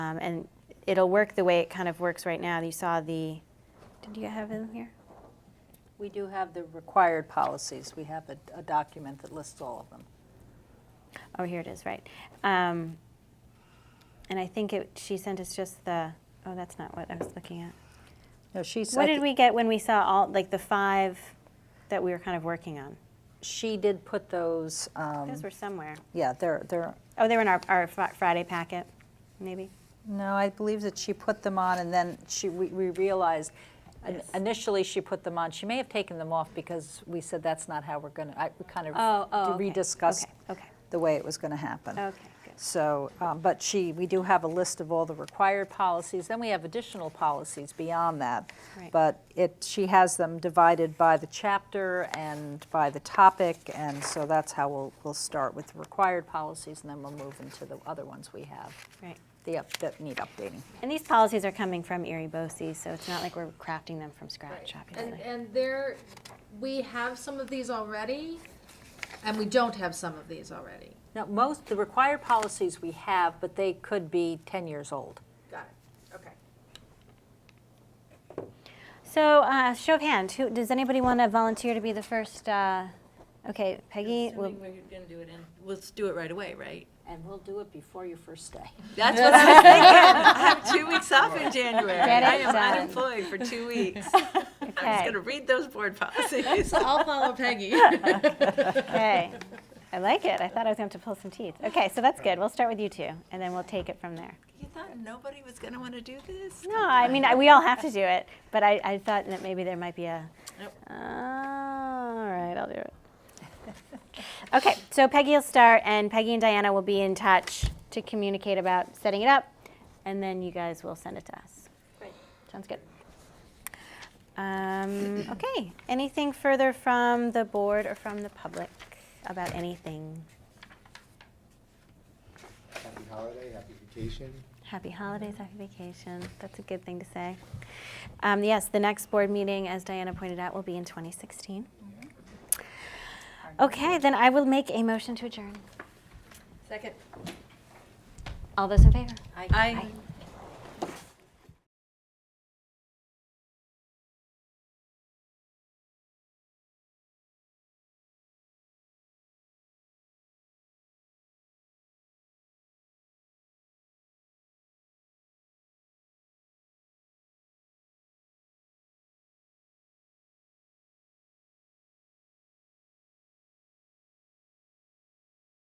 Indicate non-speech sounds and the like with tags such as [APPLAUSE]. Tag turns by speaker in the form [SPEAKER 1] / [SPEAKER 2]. [SPEAKER 1] Um, and it'll work the way it kind of works right now. You saw the, did you have them here?
[SPEAKER 2] We do have the required policies. We have a, a document that lists all of them.
[SPEAKER 1] Oh, here it is, right. Um, and I think it, she sent us just the, oh, that's not what I was looking at.
[SPEAKER 2] No, she
[SPEAKER 1] What
[SPEAKER 2] said,
[SPEAKER 1] did we get when we saw all, like the five that we were kind of working on?
[SPEAKER 2] she did put those, um,
[SPEAKER 1] Those were somewhere.
[SPEAKER 2] yeah, they're, they're,
[SPEAKER 1] Oh, they were in our, our Fri- Friday packet, maybe?
[SPEAKER 2] no, I believe that she put them on and then she, we, we realized, in- initially she put them on. She may have taken them off because we said that's not how we're gonna, I, we kind of
[SPEAKER 1] Oh, oh, okay,
[SPEAKER 2] rediscussed
[SPEAKER 1] okay, Okay,
[SPEAKER 2] the way it was gonna happen.
[SPEAKER 1] okay, good.
[SPEAKER 2] So, um, but she, we do have a list of all the required policies, then we have additional policies beyond that.
[SPEAKER 1] Right.
[SPEAKER 2] But it, she has them divided by the chapter and by the topic, and so that's how we'll, we'll start with the required policies, and then we'll move into the other ones we have,
[SPEAKER 1] Right.
[SPEAKER 2] the up, that need updating.
[SPEAKER 1] And these policies are coming from Erie BOCES, so it's not like we're crafting them from scratch,
[SPEAKER 3] And,
[SPEAKER 1] obviously.
[SPEAKER 3] and there, we have some of these already, and we don't have some of these already.
[SPEAKER 2] Now, most, the required policies we have, but they could be 10 years old.
[SPEAKER 3] Got it, okay.
[SPEAKER 1] So, uh, show of hand, who, does anybody want to volunteer to be the first, uh, okay, Peggy? will-
[SPEAKER 4] Assuming we're gonna do it in, let's do it right away, right?
[SPEAKER 2] And we'll do it before your first [LAUGHS] day.
[SPEAKER 4] That's what I
[SPEAKER 1] [LAUGHS]
[SPEAKER 4] was thinking. I have two weeks off in January.
[SPEAKER 1] Get
[SPEAKER 4] I
[SPEAKER 1] it
[SPEAKER 4] am
[SPEAKER 1] done.
[SPEAKER 4] unemployed
[SPEAKER 1] [LAUGHS]
[SPEAKER 4] for two weeks. I'm just
[SPEAKER 1] Okay,
[SPEAKER 4] gonna read those board
[SPEAKER 1] [LAUGHS]
[SPEAKER 4] policies.
[SPEAKER 3] I'll follow [LAUGHS] Peggy.
[SPEAKER 1] okay. I like it, I thought I was going to have to pull some teeth. Okay, so that's good, we'll start with you two, and then we'll take it from there.
[SPEAKER 4] You thought nobody was gonna wanna do this?
[SPEAKER 1] No, I mean, I- we all have to do it, but I, I thought that maybe there might be a,
[SPEAKER 4] Nope.
[SPEAKER 1] all right, I'll do it. Okay, so Peggy will start, and Peggy and Diana will be in touch to communicate about setting it up, and then you guys will send it to us.
[SPEAKER 4] Great.
[SPEAKER 1] Sounds good. Um, okay, anything further from the board or from the public about anything?
[SPEAKER 5] Happy holiday, happy vacation.
[SPEAKER 1] Happy holidays, happy vacation. That's a good thing to say. Um, yes, the next board meeting, as Diana pointed out, will be in 2016. Okay, then I will make a motion to adjourn.
[SPEAKER 4] Second.
[SPEAKER 1] All those in favor?
[SPEAKER 4] I.